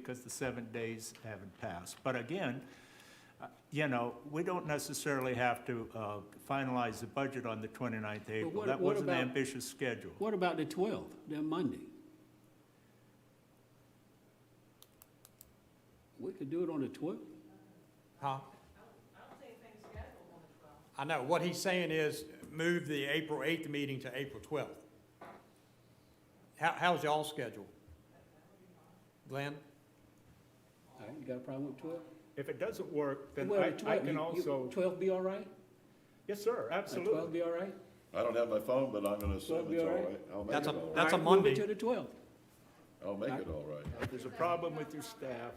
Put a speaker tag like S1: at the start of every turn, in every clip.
S1: because the seven days haven't passed. But again, uh, you know, we don't necessarily have to uh, finalize the budget on the 29th of April.
S2: what-
S1: That
S2: what
S1: was an
S2: about-
S1: ambitious schedule.
S2: What about the 12th, that Monday? We could do it on the 12th.
S3: Huh? I know, what he's saying is move the April 8th meeting to April 12th. How, how's y'all schedule? Glenn?
S2: All right, you got a problem with 12?
S1: If it doesn't work, then
S2: Well,
S1: I- I
S2: 12,
S1: can
S2: you- you-
S1: also,
S2: 12 be all right?
S1: yes, sir,
S2: Would
S1: absolutely.
S2: 12 be all right?
S4: I don't have my phone, but I'm gonna assume
S2: be
S4: it's all
S2: all right.
S4: right. I'll make
S3: That's
S4: it
S3: a,
S4: all right.
S3: that's a
S1: Alright,
S2: Move it
S3: Monday.
S2: to the 12th.
S4: I'll make it all right.
S1: If there's a problem with your staff,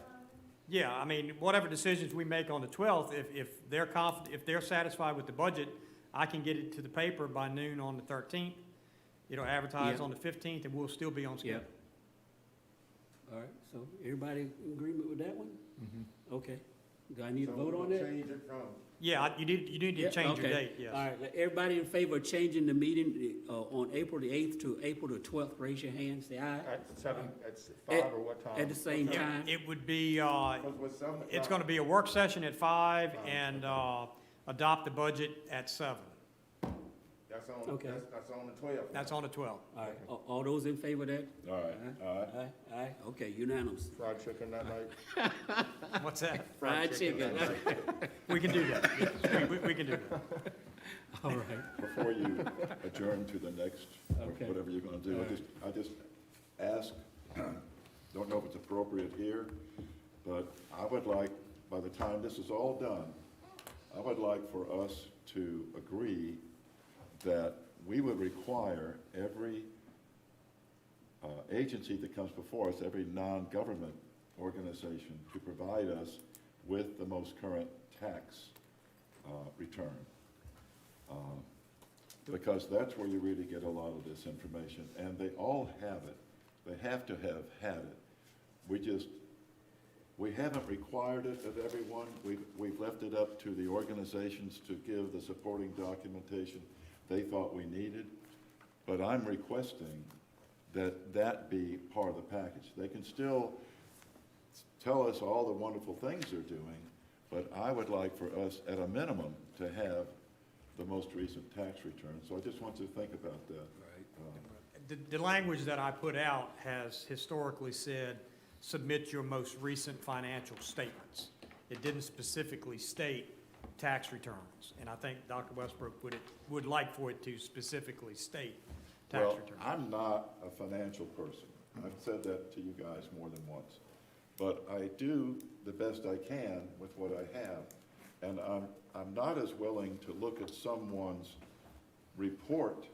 S3: Yeah, I mean, whatever decisions we make on the 12th, if, if they're conf, if they're satisfied with the budget, I can get it to the paper by noon on the 13th. It'll advertise
S2: Yeah.
S3: on the 15th, and we'll still be on schedule.
S2: All right, so everybody in agreement with that one?
S3: Mm-hmm.
S2: Okay. Do I need to vote on that?
S5: Change it from
S3: Yeah, I- you need, you need to
S2: Yeah,
S3: change your
S2: okay.
S3: date, yes.
S2: All right, like, everybody in favor of changing the meeting uh, on April the 8th to April the 12th, raise your hand, say aye.
S5: at seven, at s- five or what time?
S2: At the same
S3: Yeah,
S2: time.
S3: It would be, uh,
S5: Because with some.
S3: It's gonna be a work session at five and, uh, adopt the budget at seven.
S5: That's on,
S2: Okay.
S5: that's, that's on the twelve.
S3: That's on the twelfth.
S2: All right, a- all those in favor of that?
S4: All right, all right.
S2: Aye, aye, okay, unanimous.
S5: Fried chicken that night.
S3: What's that?
S2: Fried chicken.
S3: We can do that, yes, we, we- we can do that.
S2: All right,
S4: Before you adjourn to the next,
S2: Okay.
S4: whatever you're gonna do, I just, I just ask, don't know if it's appropriate here, but I would like, by the time this is all done, I would like for us to agree that we would require every uh, agency that comes before us, every non-government organization, to provide us with the most current tax uh, return. Um, Because that's where you really get a lot of this information, and they all have it. They have to have had it. We just, we haven't required it of everyone. We've, we've left it up to the organizations to give the supporting documentation they thought we needed. But I'm requesting that that be part of the package. They can still tell us all the wonderful things they're doing, but I would like for us, at a minimum, to have the most recent tax return. So I just want you to think about that. Uh,
S3: The, the language that I put out has historically said, submit your most recent financial statements. It didn't specifically state tax returns, and I think Dr. Westbrook would, would like for it to specifically state tax
S4: Well,
S3: returns.
S4: I'm not a financial person. I've said that to you guys more than once. But I do the best I can with what I have, and I'm, I'm not as willing to look at someone's report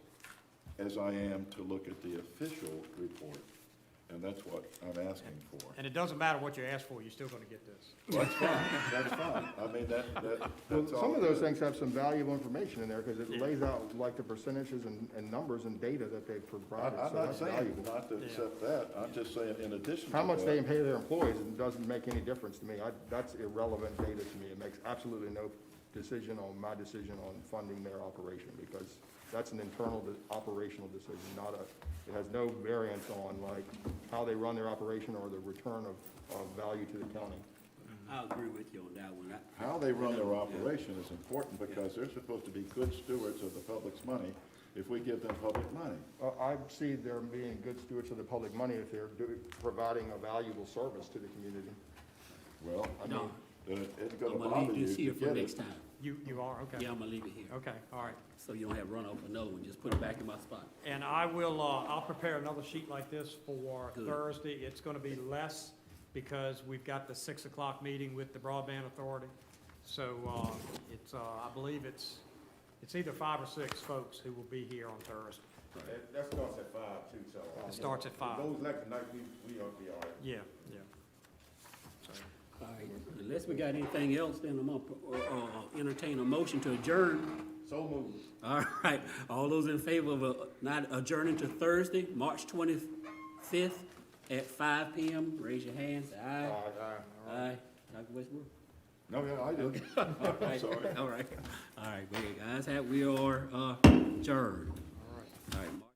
S4: as I am to look at the official report, and that's what I'm asking for.
S3: And it doesn't matter what you ask for, you're still gonna get this.
S4: That's fine, that's fine. I mean, that, that,
S5: Well,
S4: that's all.
S5: some of those
S4: good.
S5: things have some valuable information in there because it lays out like the percentages and, and numbers and data that they've
S4: I-
S5: provided.
S4: I'm
S5: so
S4: not
S5: that's
S4: saying
S5: valuable.
S4: not to accept that, I'm just saying in addition to that.
S5: How much they pay their employees doesn't make any difference to me. I, that's irrelevant data to me. It makes absolutely no decision on my decision on funding their operation because that's an internal de- operational decision, not a, it has no variance on like how they run their operation or the return of, of value to the county.
S2: I agree with you on that one. I-
S4: How they run their operation is important because they're supposed to be good stewards of the public's money if we give them public money.
S5: Uh, I see them being good stewards of the public money if they're do- providing a valuable service to the community.
S4: Well, I mean,
S2: No.
S4: then it isn't
S2: I'm
S4: gonna
S2: gonna
S4: bother
S2: leave
S4: you
S2: this
S4: to
S2: here for
S4: get
S2: next
S4: it.
S2: time.
S3: You, you are, okay.
S2: Yeah, I'm gonna leave it here,
S3: Okay, all right.
S2: so you don't have run off another one, just put it back in my spot.
S3: And I will, uh, I'll prepare another sheet like this for
S2: Good.
S3: Thursday. It's gonna be less because we've got the six o'clock meeting with the broadband authority. So, uh, it's, uh, I believe it's, it's either five or six folks who will be here on Thursday.
S6: That, that starts at five too, so. uh,
S3: It starts at five.
S6: Those election night, we, we ought to be all right.
S3: Yeah, yeah. So,
S2: All right, unless we got anything else, then I'm gonna, pro- uh, uh, entertain a motion to adjourn.
S6: So moved.
S2: All right, all those in favor of, uh, not adjourning to Thursday, March twenty-fifth at five PM, raise your hands, aye. Aye, Dr. Westbrook?
S4: No, yeah, I did.
S2: Right,
S4: sorry.
S2: All right, all right, we, guys, have- we are, uh, adjourned.
S3: All right.
S2: All right.